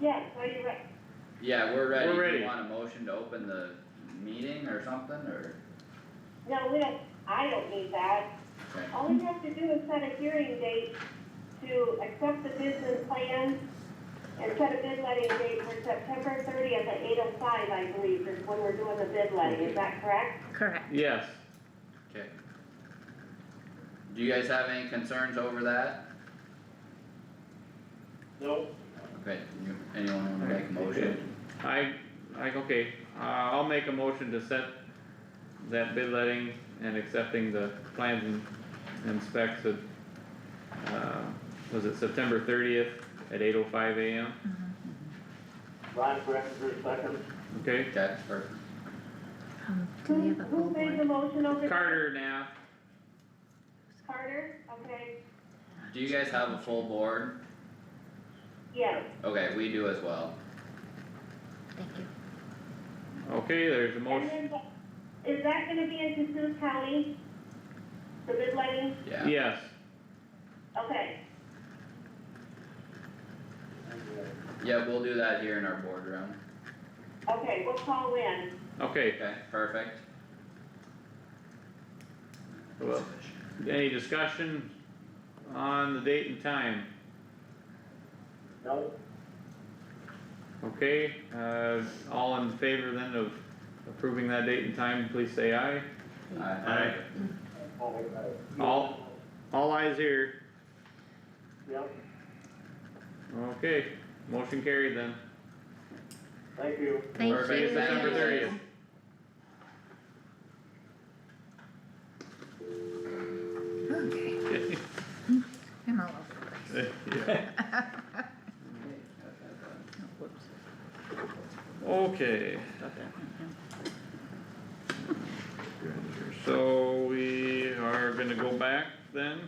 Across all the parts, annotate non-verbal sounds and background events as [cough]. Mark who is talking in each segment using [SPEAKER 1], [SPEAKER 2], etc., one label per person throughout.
[SPEAKER 1] Yeah, so you're right.
[SPEAKER 2] Yeah, we're ready.
[SPEAKER 3] We're
[SPEAKER 2] Do you
[SPEAKER 3] ready.
[SPEAKER 2] Want a motion to open the meeting or something, or,
[SPEAKER 1] No, we don't, I don't need that.
[SPEAKER 2] okay,
[SPEAKER 1] All we have to do is set a hearing date to accept the business plan and set a bid letting date for September thirtieth at eight oh five, I believe, is when we're doing the bid letting, is that correct?
[SPEAKER 4] Correct.
[SPEAKER 3] Yes,
[SPEAKER 2] okay. Do you guys have any concerns over that?
[SPEAKER 5] No,
[SPEAKER 2] Okay, you, anyone wanna make a motion?
[SPEAKER 3] I, I, okay, uh, I'll make a motion to set that bid letting and accepting the plans and- and specs of, uh, was it September thirtieth at eight oh five AM?
[SPEAKER 5] Ryan Breckinger, second.
[SPEAKER 3] Okay,
[SPEAKER 2] Okay, perfect.
[SPEAKER 4] Um, do we have a
[SPEAKER 1] Who- Who made the
[SPEAKER 4] billboard?
[SPEAKER 1] motion over?
[SPEAKER 3] Carter now,
[SPEAKER 1] Carter, okay,
[SPEAKER 2] Do you guys have a full board?
[SPEAKER 1] yes,
[SPEAKER 2] Okay, we do as well.
[SPEAKER 4] Thank you.
[SPEAKER 3] okay, there's a
[SPEAKER 1] and
[SPEAKER 3] motion,
[SPEAKER 1] then, the- is that gonna be in Cassuth County? The bid letting,
[SPEAKER 2] Yeah,
[SPEAKER 3] yes,
[SPEAKER 1] okay,
[SPEAKER 2] yeah, we'll do that here in our boardroom.
[SPEAKER 1] okay, we'll call in,
[SPEAKER 3] okay,
[SPEAKER 2] Okay, perfect.
[SPEAKER 3] well, any discussion on the date and time?
[SPEAKER 5] No,
[SPEAKER 3] Okay, uh, all in favor then of approving that date and time, please say aye.
[SPEAKER 2] Aye.
[SPEAKER 5] oh,
[SPEAKER 3] All, all eyes here,
[SPEAKER 5] Yep,
[SPEAKER 3] okay, motion carried then.
[SPEAKER 5] thank you.
[SPEAKER 4] Thank
[SPEAKER 2] Perfect,
[SPEAKER 4] you.
[SPEAKER 3] See you September
[SPEAKER 2] thank you.
[SPEAKER 3] thirtieth.
[SPEAKER 4] Okay, Hmm. I'm all over the place.
[SPEAKER 3] [laughs]
[SPEAKER 4] Oh, whoops.
[SPEAKER 3] Okay,
[SPEAKER 4] Got that one, yeah.
[SPEAKER 3] so we are gonna go back then,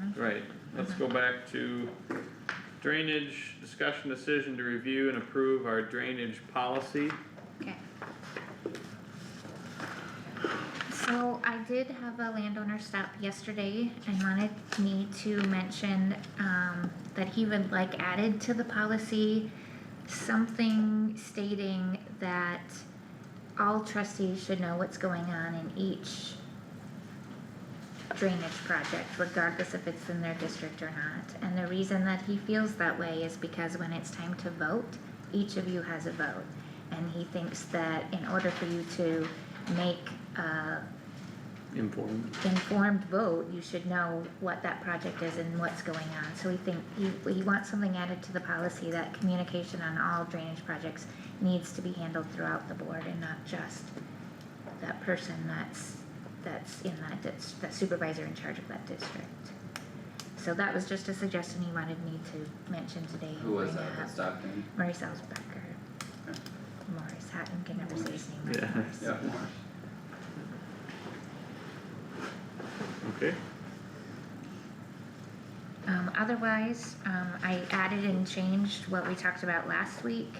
[SPEAKER 2] Mm-hmm.
[SPEAKER 3] right, let's go back to drainage discussion decision to review and approve our drainage policy.
[SPEAKER 4] Okay. So I did have a landowner stop yesterday and wanted me to mention, um, that he would like added to the policy something stating that all trustees should know what's going on in each drainage project regardless if it's in their district or not. And the reason that he feels that way is because when it's time to vote, each of you has a vote. And he thinks that in order for you to make a
[SPEAKER 3] Informed.
[SPEAKER 4] informed vote, you should know what that project is and what's going on. So we think, he, he wants something added to the policy that communication on all drainage projects needs to be handled throughout the board and not just that person that's, that's in that, dis- that supervisor in charge of that district. So that was just a suggestion he wanted me to mention today. and
[SPEAKER 2] Who was
[SPEAKER 4] bring
[SPEAKER 2] that
[SPEAKER 4] up.
[SPEAKER 2] that stopped me?
[SPEAKER 4] Maurice Elsbecker. Morris Hatton can never say his name
[SPEAKER 3] Yeah.
[SPEAKER 4] right. Morris.
[SPEAKER 2] Yeah,
[SPEAKER 3] Okay.
[SPEAKER 4] Um, otherwise, um, I added and changed what we talked about last
[SPEAKER 6] [laughs]
[SPEAKER 4] week. [laughs]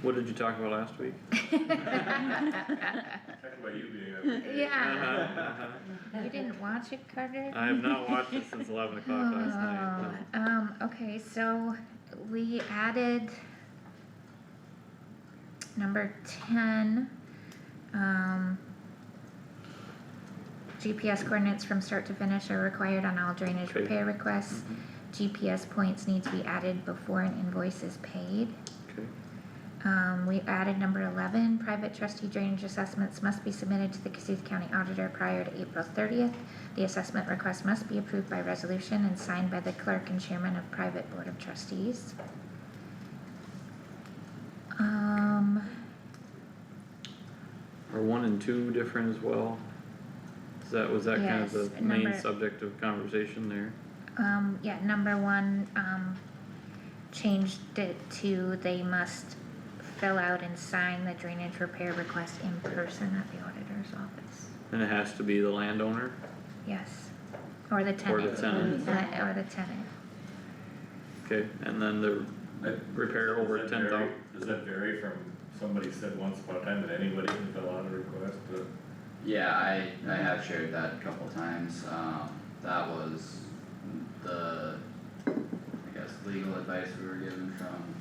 [SPEAKER 3] What did you talk about last [laughs] week?
[SPEAKER 4] you
[SPEAKER 6] Talk about you being a.
[SPEAKER 4] Yeah.
[SPEAKER 3] Uh-huh.
[SPEAKER 4] didn't watch it, Carter?
[SPEAKER 3] I have not watched it since eleven o'clock
[SPEAKER 2] [laughs]
[SPEAKER 3] last night. no.
[SPEAKER 4] Oh, Um, okay, so we added number ten, um, GPS coordinates from start to finish are required on all drainage
[SPEAKER 3] Okay. Mm-hmm.
[SPEAKER 4] repair requests. GPS points need to be added before an invoice is paid.
[SPEAKER 3] Okay.
[SPEAKER 4] Um, we added number eleven, private trustee drainage assessments must be submitted to the Cassuth County Auditor prior to April thirtieth. The assessment request must be approved by resolution and signed by the clerk and chairman of private board of trustees. Um,
[SPEAKER 3] Are one and two different as well? Is that, was that kind of
[SPEAKER 4] Yes,
[SPEAKER 3] the main
[SPEAKER 4] number-
[SPEAKER 3] subject of conversation there?
[SPEAKER 4] um, yeah, number one, um, changed it to they must fill out and sign the drainage repair request in person at the auditor's office.
[SPEAKER 3] And it has to be the landowner?
[SPEAKER 4] Yes, or the
[SPEAKER 3] Or
[SPEAKER 4] tenant.
[SPEAKER 3] the tenant.
[SPEAKER 4] Uh, Or the tenant.
[SPEAKER 3] Okay, and then the repair over
[SPEAKER 6] Does that
[SPEAKER 3] ten
[SPEAKER 6] vary-
[SPEAKER 3] thousand,
[SPEAKER 6] Does that vary from, somebody said once upon a time that anybody can fill out a request, but
[SPEAKER 2] Yeah, I, I have shared that a couple times, um, that was the, I guess, legal advice we were given from